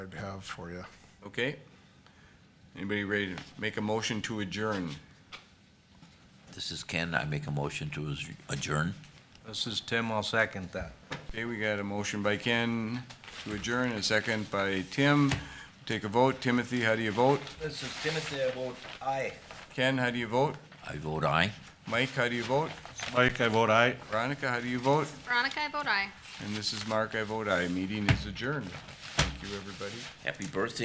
I'd have for you. Okay? Anybody ready to make a motion to adjourn? This is Ken. I make a motion to adjourn. This is Tim, I'll second that. Okay, we got a motion by Ken to adjourn, a second by Tim. Take a vote. Timothy, how do you vote? This is Timothy, I vote aye. Ken, how do you vote? I vote aye. Mike, how do you vote? Mike, I vote aye. Veronica, how do you vote? Veronica, I vote aye. And this is Mark, I vote aye. Meeting is adjourned. Thank you, everybody. Happy birthday.